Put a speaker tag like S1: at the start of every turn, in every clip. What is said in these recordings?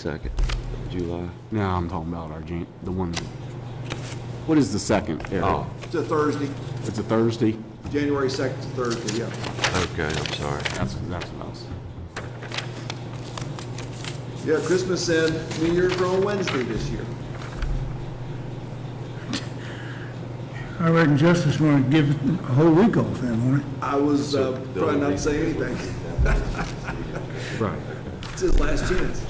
S1: Second, July.
S2: No, I'm talking about our, Jan- the one, what is the second,
S1: Oh,
S2: Eric?
S3: It's a Thursday,
S2: It's a Thursday?
S3: January 2nd to Thursday, yeah.
S1: Okay, I'm sorry.
S2: That's, that's what I was.
S3: Yeah, Christmas and New Year's are on Wednesday this year.
S4: I reckon Justin's gonna give it a whole week off then, won't he?
S3: I was uh, probably not saying anything.
S2: Right.
S3: It's his last chance.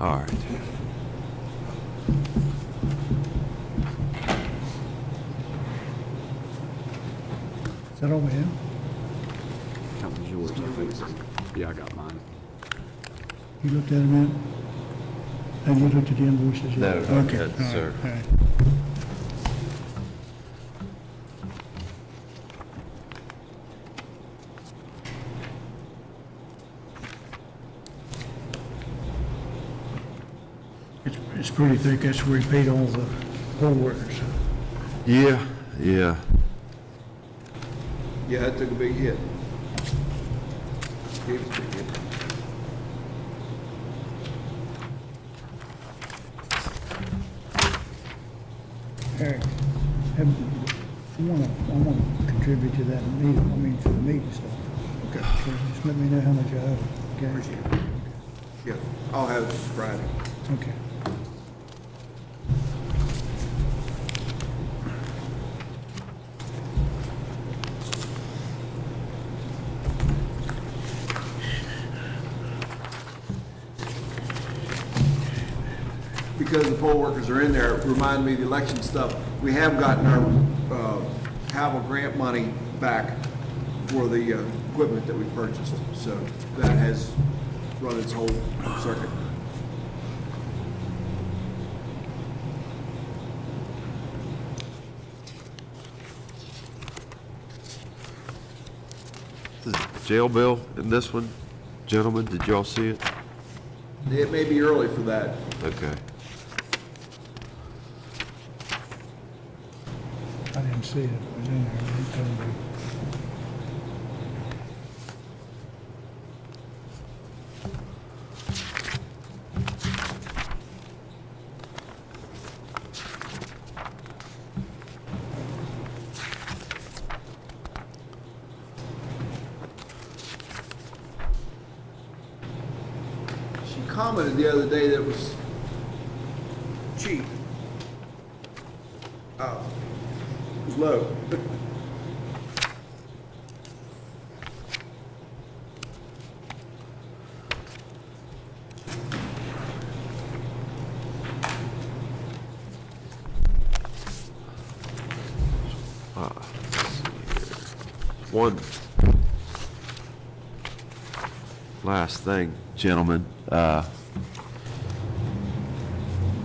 S1: All right.
S4: Is that all we have?
S2: That was yours, I think. so. Yeah, I got mine.
S4: You looked at them yet? Have you looked at the invoices
S1: No,
S4: yet?
S1: not
S4: Okay,
S1: yet,
S4: all right,
S1: sir.
S4: all right. It's, it's pretty thick, that's where he paid all the poll workers.
S1: Yeah, yeah.
S3: Yeah, it took a big hit. Gave us a big hit.
S4: Eric, have, I wanna, I wanna contribute to that meeting, I mean, for the meeting stuff. Okay. Just let me know how much I owe, okay?
S3: Yeah, I'll have it Friday.
S4: Okay.
S3: Because the poll workers are in there, remind me of the election stuff. We have gotten our uh, Havel grant money back for the uh, equipment that we purchased. So that has run its whole circuit.
S1: Jail bill in this one, gentlemen, did y'all see it?
S3: It may be early for that.
S1: Okay.
S4: I didn't see it, it was in there, it told me.
S3: She commented the other day that it was cheap. Uh, It was low.
S1: One last thing, gentlemen. Uh,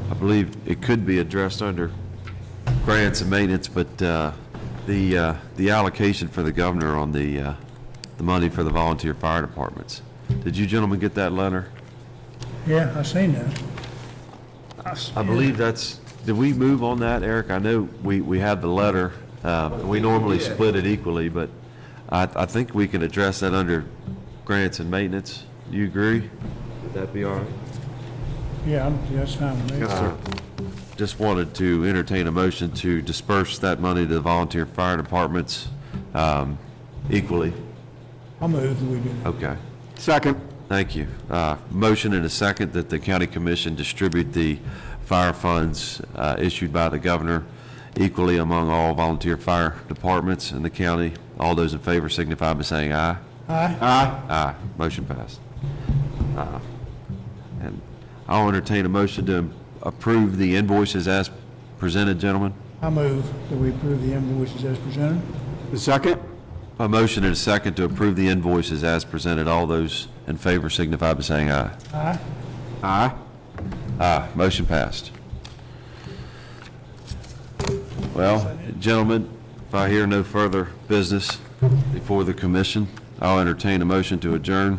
S1: I believe it could be addressed under grants and maintenance, but uh, the, uh, the allocation for the governor on the, uh, the money for the volunteer fire departments. Did you gentlemen get that letter?
S4: Yeah, I seen that.
S1: I believe that's, did we move on that, Eric? I know we, we had the letter, uh, we normally
S3: Yeah.
S1: split it equally, but I, I think we can address that under grants and maintenance. You agree? Would that be all right?
S4: Yeah, I'm- yeah, that's fine with me.
S1: Just wanted to entertain a motion to disperse that money to the volunteer fire departments, um, equally.
S4: I'll move that we do that.
S1: Okay.
S2: Second.
S1: Thank you. Uh, Motion and a second that the county commission distribute the fire funds uh, issued by the governor equally among all volunteer fire departments in the county. All those in favor signify by saying aye.
S4: Aye,
S2: Aye.
S1: Aye. Motion passed. Uh, And I'll entertain a motion to approve the invoices as presented, gentlemen.
S4: I move that we approve the invoices as presented.
S2: The second?
S1: A motion and a second to approve the invoices as presented. All those in favor signify by saying aye.
S4: Aye,
S2: Aye.
S1: Aye, motion passed. Well, gentlemen, if I hear no further business before the commission, I'll entertain a motion to adjourn.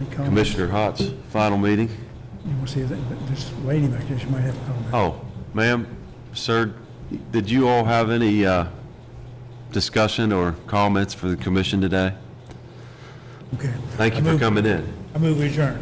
S4: Any comments?
S1: Commissioner Hotz, final meeting?
S4: You want to see that, but this lady back there, she might have a comment.
S1: Oh, ma'am, sir, did you all have any uh, discussion or comments for the commission today?
S4: Okay.
S1: Oh, Thank you for coming in.
S4: I move we adjourn.